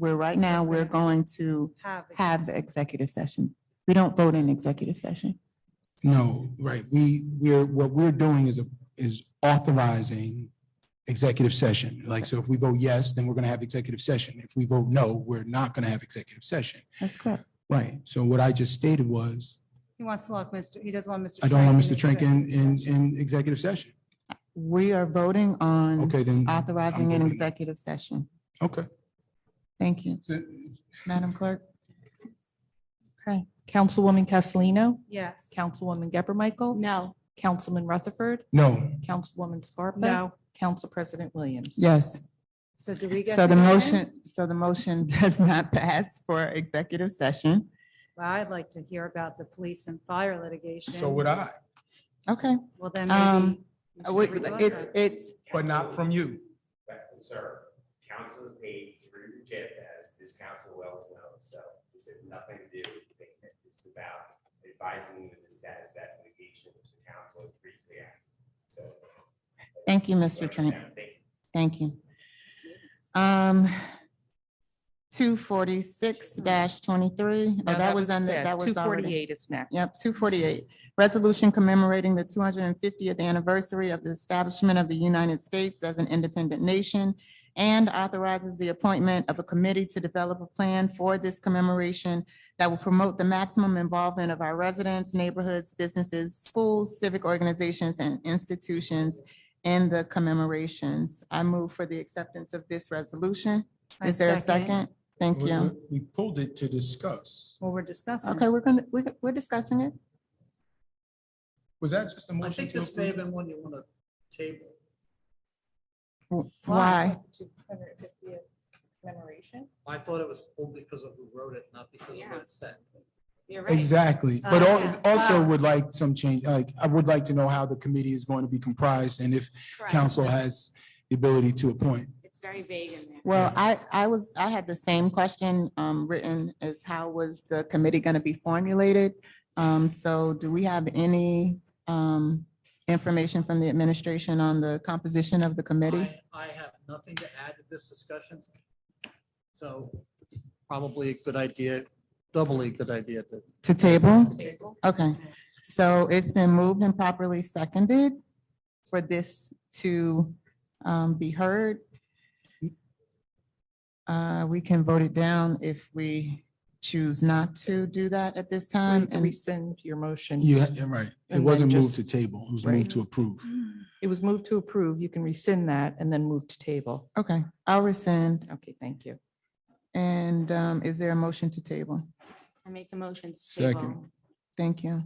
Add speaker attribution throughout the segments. Speaker 1: we're right now, we're going to
Speaker 2: have.
Speaker 1: have the executive session. We don't vote in executive session.
Speaker 3: No,
Speaker 1: Um,
Speaker 3: right. We, we're, what we're doing is, a is authorizing executive session. Like, so if we vote yes, then we're going to have executive session. If we vote no, we're not going to have executive session.
Speaker 1: That's correct.
Speaker 3: Right. So what I just stated was,
Speaker 2: He wants to lock Mr., he doesn't want Mr.
Speaker 3: I don't want Mr.
Speaker 2: Trank
Speaker 3: Trank
Speaker 2: in
Speaker 3: in, in,
Speaker 2: executive session.
Speaker 3: in executive session.
Speaker 1: We are voting on
Speaker 3: Okay, then.
Speaker 1: Mm-hmm. authorizing
Speaker 3: I'm
Speaker 1: an
Speaker 3: voting-
Speaker 1: executive session.
Speaker 3: Okay.
Speaker 1: Thank you.
Speaker 3: So-
Speaker 1: Madam Clerk?
Speaker 4: Okay. Councilwoman Castellino,
Speaker 2: Yes.
Speaker 4: Councilwoman Geber Michael.
Speaker 5: No.
Speaker 4: Councilman Rutherford,
Speaker 3: No,
Speaker 4: Councilwoman Scarpa. Council President Williams.
Speaker 1: Yes.
Speaker 2: So do we get?
Speaker 1: So the
Speaker 2: to go in?
Speaker 1: motion, so the motion does not pass for executive session.
Speaker 2: Well, I'd like to hear about the police and fire litigation.
Speaker 3: so would I,
Speaker 1: Okay.
Speaker 2: Well, then maybe.
Speaker 1: Um,
Speaker 2: you
Speaker 1: Uh,
Speaker 2: should
Speaker 1: wait,
Speaker 2: relook
Speaker 1: It's,
Speaker 2: at it.
Speaker 1: it's,
Speaker 3: but not from you.
Speaker 6: Sir, council is paid through JIP, as this council well knows, so this has nothing to do with payment. This is about advising you of the status of that litigation, which the council has previously asked, so.
Speaker 1: thank you, Mr. Trent.
Speaker 6: Thank you.
Speaker 1: Thank you. Um, two forty-six twenty-three, oh, that was under, that was
Speaker 4: Two
Speaker 1: already.
Speaker 4: forty-eight is next.
Speaker 1: Yep, two forty-eight. Resolution commemorating the two hundred and fiftieth anniversary of the establishment of the United States as an independent nation and authorizes the appointment of a committee to develop a plan for this commemoration that will promote the maximum involvement of our residents, neighborhoods, businesses, schools, civic organizations, and institutions in the commemorations. I move for the acceptance of this resolution.
Speaker 2: I
Speaker 1: Is there a
Speaker 2: second
Speaker 1: second? Thank
Speaker 3: We-
Speaker 1: you.
Speaker 3: We pulled it to discuss.
Speaker 2: What we're discussing.
Speaker 1: Okay, we're gonna, we're, we're discussing it.
Speaker 3: Was that just a
Speaker 7: I
Speaker 3: motion
Speaker 7: think
Speaker 3: to
Speaker 7: this may have
Speaker 3: approve?
Speaker 7: been one you want to table.
Speaker 1: Why?
Speaker 4: Commemoration.
Speaker 7: I thought it was only because of who wrote it, not because of
Speaker 5: Yeah.
Speaker 7: what it said.
Speaker 5: You're right.
Speaker 3: Exactly. But
Speaker 2: Uh,
Speaker 3: al-
Speaker 2: yeah.
Speaker 3: also
Speaker 2: Wow.
Speaker 3: would like some change, like, I would like to know how the committee is going to be comprised and if
Speaker 5: Correct.
Speaker 3: council has the ability to appoint.
Speaker 5: It's very vague in there.
Speaker 1: Well, I, I was, I had the same question, um, written as how was the committee gonna be formulated? Um, so do we have any, um, information from the administration on the composition of the committee?
Speaker 7: I, I have nothing to add to this discussion. So probably a good idea, doubly a good idea to
Speaker 1: To table? Okay, so it's been moved and properly seconded for this to, um, be heard. Uh, we can vote it down if we choose not to do that at this time. Um, and-
Speaker 4: Rescind your motion.
Speaker 3: Yeah, yeah, right. It
Speaker 4: And
Speaker 3: wasn't
Speaker 4: then
Speaker 3: moved to
Speaker 4: just-
Speaker 3: table. It was
Speaker 4: Right.
Speaker 3: moved to approve.
Speaker 4: It was moved to approve. You can rescind that and then move to table.
Speaker 1: Okay, I'll rescind.
Speaker 4: Okay, thank you.
Speaker 1: And um, is there a motion to table?
Speaker 5: I make a motion to
Speaker 3: Second.
Speaker 5: table.
Speaker 1: Thank you.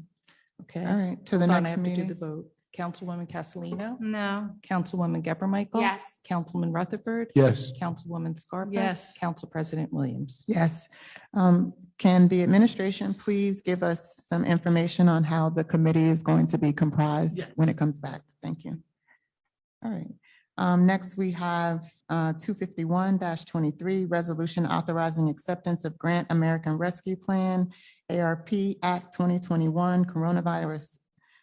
Speaker 4: Okay.
Speaker 1: All right, to the
Speaker 4: Hold on, I
Speaker 1: next
Speaker 4: have to do the
Speaker 1: meeting.
Speaker 4: vote. Councilwoman Castellino,
Speaker 2: No.
Speaker 4: Councilwoman Geber Michael.
Speaker 5: Yes.
Speaker 4: Councilman Rutherford.
Speaker 3: Yes.
Speaker 4: Councilwoman Scarpa.
Speaker 2: Yes.
Speaker 4: Council President Williams.
Speaker 1: Yes. Um, Can the administration please give us some information on how the committee is going to be comprised
Speaker 7: Yes.
Speaker 1: when it comes back? Thank you. All right. Um, Next, we have uh, two fifty-one twenty-three, resolution authorizing acceptance of Grant American Rescue Plan, ARP Act twenty twenty-one, Coronavirus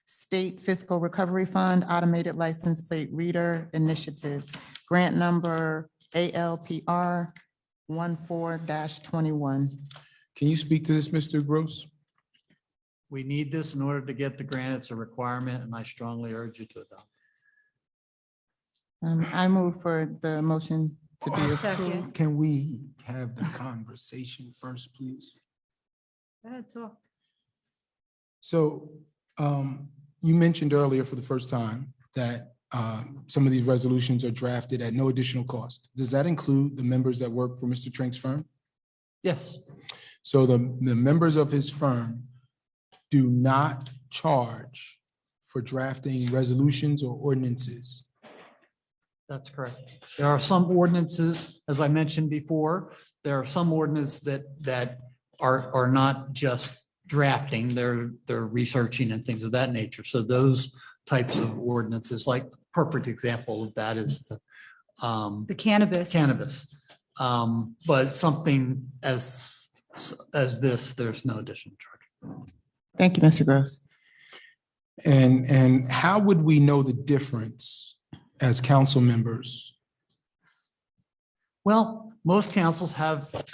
Speaker 1: State Fiscal Recovery Fund Automated License Plate Reader Initiative, grant number ALPR one four dash twenty-one.
Speaker 3: Can you speak to this, Mr. Gross?
Speaker 7: We need this in order to get the grant. It's a requirement, and I strongly urge you to adopt.
Speaker 1: Um, I move for the motion to be approved.
Speaker 2: Second.
Speaker 3: Can we have the conversation first, please?
Speaker 2: Go ahead, talk.
Speaker 3: So um, you mentioned earlier for the first time that uh, some of these resolutions are drafted at no additional cost. Does that include the members that work for Mr. Trank's firm?
Speaker 7: Yes,
Speaker 3: So the, the members of his firm do not charge for drafting resolutions or ordinances.
Speaker 7: that's correct. There are some ordinances, as I mentioned before, there are some ordinances that, that are, are not just drafting, they're, they're researching and things of that nature. So those types of ordinances, like perfect example of that is the um,
Speaker 2: The cannabis.
Speaker 7: cannabis. Um, But something as, as this, there's no additional charge.
Speaker 1: Thank you, Mr. Gross.
Speaker 3: And, and how would we know the difference as council members?
Speaker 7: Well, most councils have